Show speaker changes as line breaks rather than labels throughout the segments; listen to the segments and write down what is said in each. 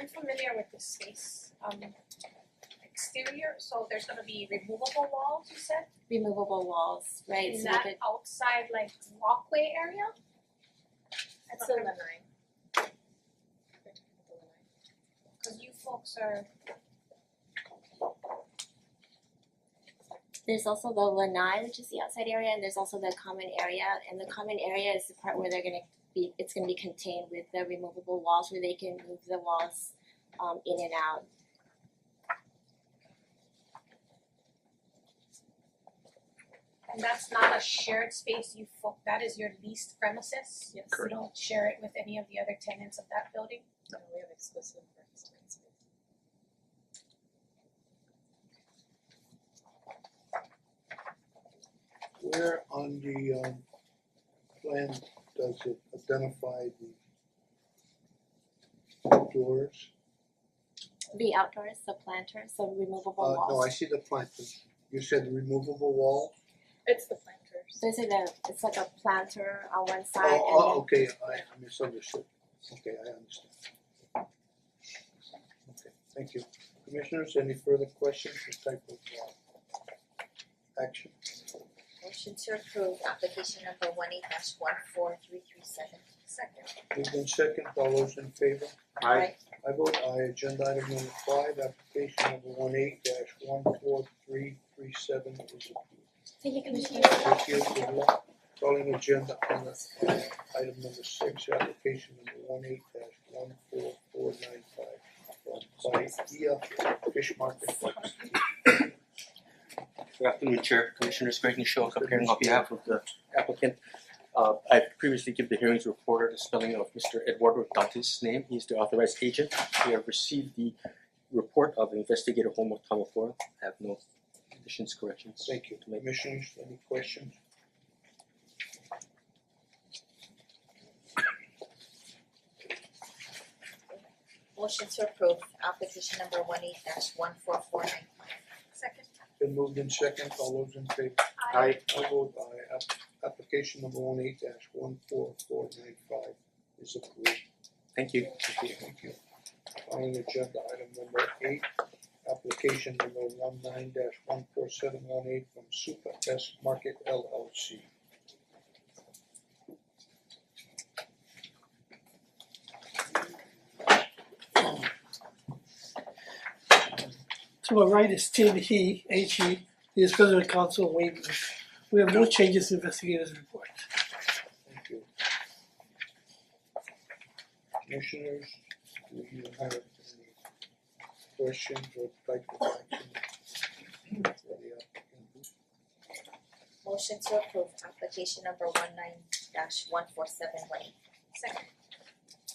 I'm familiar with this space, um exterior, so there's gonna be removable walls, you said?
removable walls, right?
Is
So that
that outside like walkway area?
That's the lanai.
Cause you folks are,
there's also the lanai, which is the outside area, and there's also the common area. And the common area is the part where they're gonna be, it's gonna be contained with the removable walls where they can move the walls um in and out.
and that's not a shared space, you folk, that is your leased premises?
Yes.
You don't share it with any of the other tenants of that building?
No, we have exclusive rights to this.
Where on the um plan does it identify the doors?
The outdoors, the planters, the removable
Uh
walls.
no, I see the plant, you said removable wall?
It's the planters.
Those are the, it's like a planter on one side and then.
Oh, oh, okay, I misunderstood, okay, I understand. Okay, thank you. Commissioners, any further questions or type of uh action?
Motion to approve application number one eight dash one four three three seven.
Second.
Moved in second, all those in favor?
Aye.
I vote aye, agenda item number five, application number one eight dash one four three three seven is approved.
Thank you, Commissioner.
Thank you, good luck. Calling agenda on the uh, item number six, application number one eight dash one four four nine five from Bahia Fish Market.
Good afternoon, Chair, Commissioners, Greg Nishio, appearing on behalf of the applicant. Uh I previously give the hearings reporter the spelling of Mister Eduardo Dantes' name, he is the authorized agent. We have received the report of investigator Homo Tamaforo, I have no additions, corrections.
Thank you, commissioners, any questions?
Motion to approve application number one eight dash one four four nine five.
Second.
Been moved in second, all those in favor?
I
I vote aye, app- application number one eight dash one four four nine five is approved.
Thank you.
Thank you. Calling agenda item number eight, application number one nine dash one four seven one eight from Super S Market LLC.
To my right is Tim He, H E, he is president of council of Wayne. We have no changes to investigators report.
Thank you. Commissioners, do you have any questions or type of action for the applicant?
Motion to approve application number one nine dash one four seven one eight.
Second.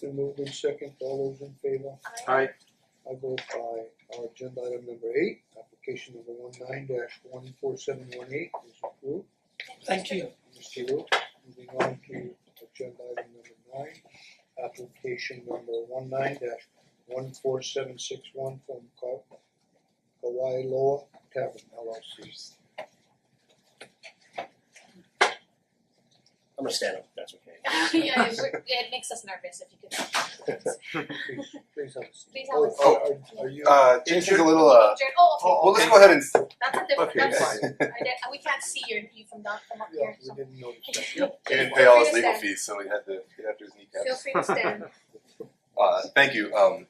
Been moved in second, all those in favor?
I
I vote by our agenda item number eight, application number one nine dash one four seven one eight is approved.
Thank you.
Mr. Wu, moving on to agenda item number nine, application number one nine dash one four seven six one from Ka- Kauai Loa Tavern LLC.
I'm gonna stand up, if that's okay.
Yeah, it would- it makes us nervous if you could.
Please, please have a seat.
Please have
Oh,
a seat.
oh, are are you?
Uh, James is a little, uh,
Jared, oh, okay.
well, well, let's go ahead and,
That's a different,
Okay.
that's
Yes.
fine. I did, we can't see your, you from down, from up
Yeah,
here,
we
so.
didn't notice that.
he didn't pay all his legal fees, so he had to get after his
Feel
kneecaps.
free to stand.
Uh, thank you, um,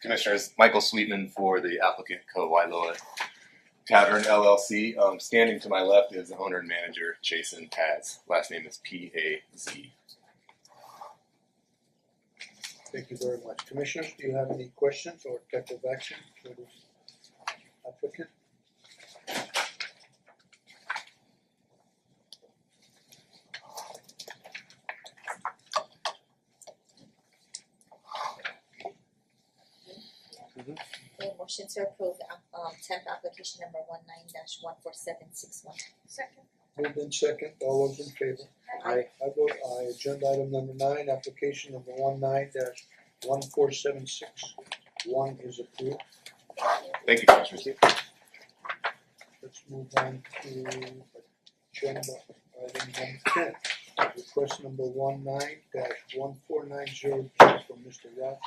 Commissioners, Michael Sweetman for the applicant Co. Wailoa Tavern LLC. Um, standing to my left is the owner and manager, Jason Paz, last name is P A Z.
Thank you very much. Commissioners, do you have any questions or type of action for this applicant?
Okay, motion to approve app- um temp application number one nine dash one four seven six one.
Second.
Moved in second, all those in favor?
Aye.
I vote aye. Agenda item number nine, application number one nine dash one four seven six one is approved.
Thank you, Commissioners.
Let's move on to agenda item number ten. Request number one nine dash one four nine zero two from Mr. Ralph